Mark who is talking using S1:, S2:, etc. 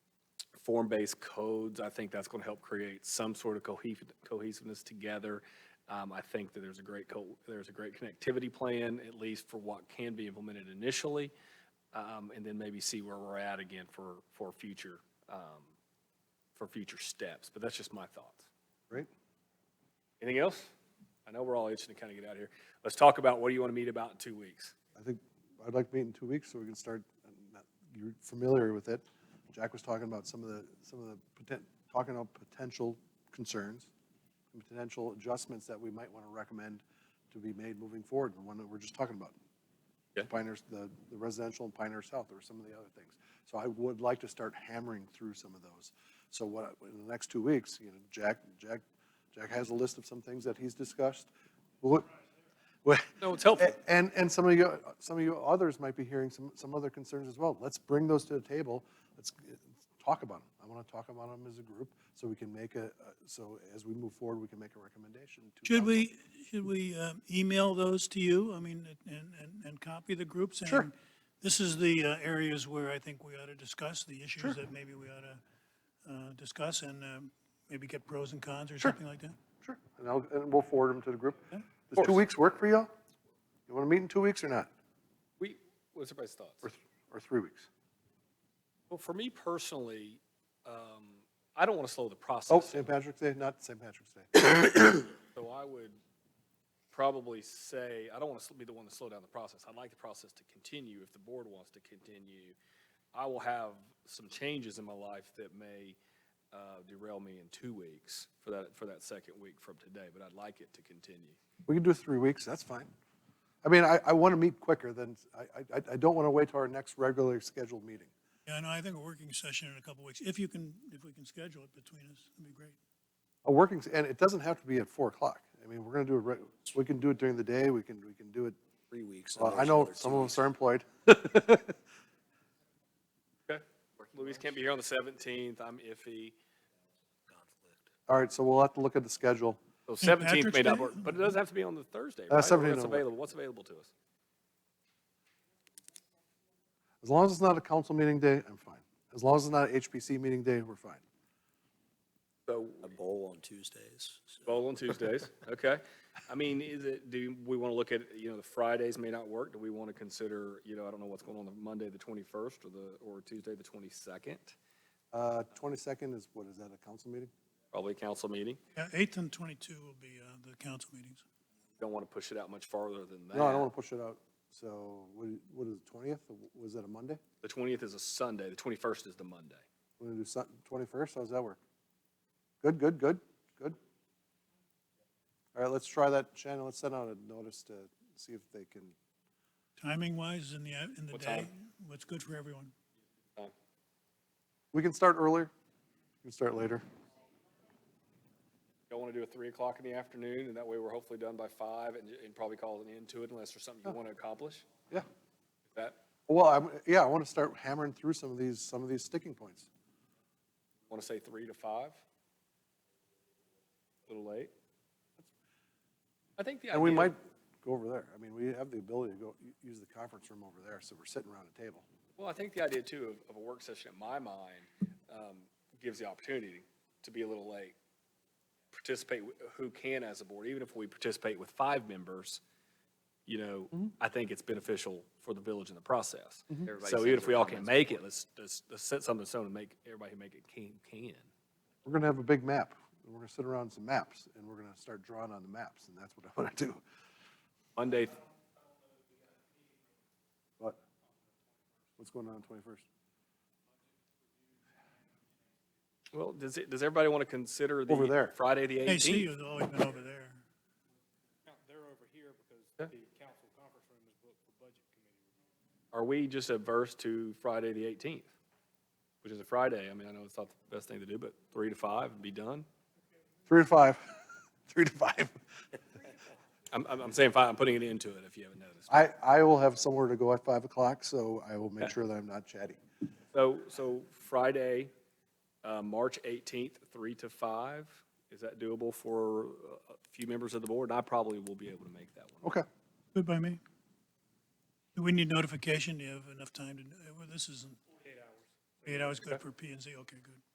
S1: form-based codes, I think that's going to help create some sort of cohesive- cohesiveness together. Um, I think that there's a great, co- there's a great connectivity plan, at least for what can be implemented initially, um, and then maybe see where we're at again for, for future, um, for future steps. But that's just my thoughts.
S2: Right?
S1: Anything else? I know we're all itching to kind of get out of here. Let's talk about what do you want to meet about in two weeks?
S2: I think, I'd like to meet in two weeks so we can start, uh, not- you're familiar with it. Jack was talking about some of the, some of the, poten- talking about potential concerns, and potential adjustments that we might want to recommend to be made moving forward, the one that we're just talking about.
S1: Okay.
S2: Pinehurst, the the residential in Pinehurst South, or some of the other things. So I would like to start hammering through some of those. So what, in the next two weeks, you know, Jack, Jack, Jack has a list of some things that he's discussed. What, what-
S1: No, it's helpful.
S2: a- And, and some of you, some of you others might be hearing some, some other concerns as well. Let's bring those to the table. Let's uh, talk about them. I want to talk about them as a group so we can make a, a- so as we move forward, we can make a recommendation. to
S3: Should
S2: council.
S3: we, should we um, email those to you? I mean, and, and, and copy the group saying,
S2: Sure.
S3: This is the uh, areas where I think we ought to discuss, the issues that maybe we ought to uh, discuss and um, maybe get pros and cons or something like that?
S2: Sure. And I'll, and we'll forward them to the group. Does two weeks work for y'all? You want to meet in two weeks or not?
S1: We, what's everybody's thoughts?
S2: Or, th- or three weeks?
S1: Well, for me personally, um, I don't want to slow the
S2: Oh,
S1: process.
S2: St. Patrick's Day, not St. Patrick's Day.
S1: So I would probably say, I don't want to be the one to slow down the process. I'd like the process to continue if the board wants to continue. I will have some changes in my life that may uh, derail me in two weeks for that, for that second week from today, but I'd like it to continue.
S2: We can do three weeks, that's fine. I mean, I, I want to meet quicker than, I, I, I don't want to wait till our next regularly scheduled meeting.
S3: Yeah, no, I think a working session in a couple weeks, if you can, if we can schedule it between us, that'd be great.
S2: A working, s- and it doesn't have to be at four o'clock. I mean, we're gonna do it, right- we can do it during the day, we can, we can do it.
S4: three weeks.
S2: Well, I know some of us are employed.
S1: Okay. Louise can't be here on the 17th. I'm iffy.
S2: All right, so we'll have to look at the schedule.
S1: So
S3: St.
S1: 17th may
S3: Patrick's
S1: not
S3: Day?
S1: work, but it does have to be on the Thursday, right?
S2: Uh, 17th
S1: What's
S2: don't work.
S1: available, what's available to us?
S2: As long as it's not a council meeting day, I'm fine. As long as it's not a HPC meeting day, we're fine.
S1: So
S4: A bowl on Tuesdays.
S1: Bowl on Tuesdays, okay. I mean, is it, do we want to look at, you know, the Fridays may not work. Do we want to consider, you know, I don't know what's going on the Monday, the 21st, or the, or Tuesday, the 22nd?
S2: Uh, twenty-second is, what, is that a council meeting?
S1: Probably a council meeting.
S3: Yeah, 8th and 22 will be uh, the council meetings.
S1: Don't want to push it out much farther than that.
S2: No, I don't wanna push it out. So, what, do you- what is it, twentieth? Was that a Monday?
S1: The 20th is a Sunday, the 21st is the Monday.
S2: We're gonna do Sun, twenty-first, how's that work? Good, good, good, good. All right, let's try that, Shannon, let's send out a notice to see if they can.
S3: Timing wise, in the, a- in the
S1: What
S3: day,
S1: time?
S3: what's good for everyone.
S1: Fine.
S2: We can start earlier. We can start later.
S1: Don't want to do it 3 o'clock in the afternoon, and that way we're hopefully done by 5 and, and probably call an end to it unless there's something you want to accomplish.
S2: Yeah.
S1: That,
S2: Well, I'm, yeah, I want to start hammering through some of these, some of these sticking points.
S1: want to say 3 to 5? A Little late? I think the idea.
S2: And we might go over there. I mean, we have the ability to go, u- use the conference room over there, so we're sitting around a table.
S1: Well, I think the idea too of, of a work session, in my mind, um, gives the opportunity to be a little late. Participate wh- who can as a board, even if we participate with five members, you
S2: Mm-hmm.
S1: know, I think it's beneficial for the village in the process.
S5: Everybody
S1: So
S5: sends
S1: even if
S5: their
S1: we all can't
S5: comments
S1: make it, let's, let's, let's set something so to make, everybody who make it can, can.
S2: We're going to have a big map. and We're going to sit around some maps, and we're going to start drawing on the maps, and that's what I want to do.
S1: Monday,
S2: But what's going on on twenty-first?
S1: well, does it, does everybody want to consider the
S2: Over there.
S1: Friday, the eighteenth?
S3: AC has always been over there.
S1: are we just adverse to Friday the 18th, which is a Friday? I mean, I know it's not the best thing to do, but three to five and be done.
S2: Three to five. Three to five.
S1: I'm, I'm I'm saying five, I'm putting it into it if you haven't noticed.
S2: I, I will have somewhere to go at five o'clock, so I will make sure that I'm not chatty.
S1: So, so Friday, uh, March 18th, three to five, is that doable for uh, a few members of the board? And I probably will be able to make that one.
S2: Okay.
S3: Good by me. Do we need notification? Do you have enough time to, well, this isn't. Eight hours. Eight hours, good for P and Z, okay, good.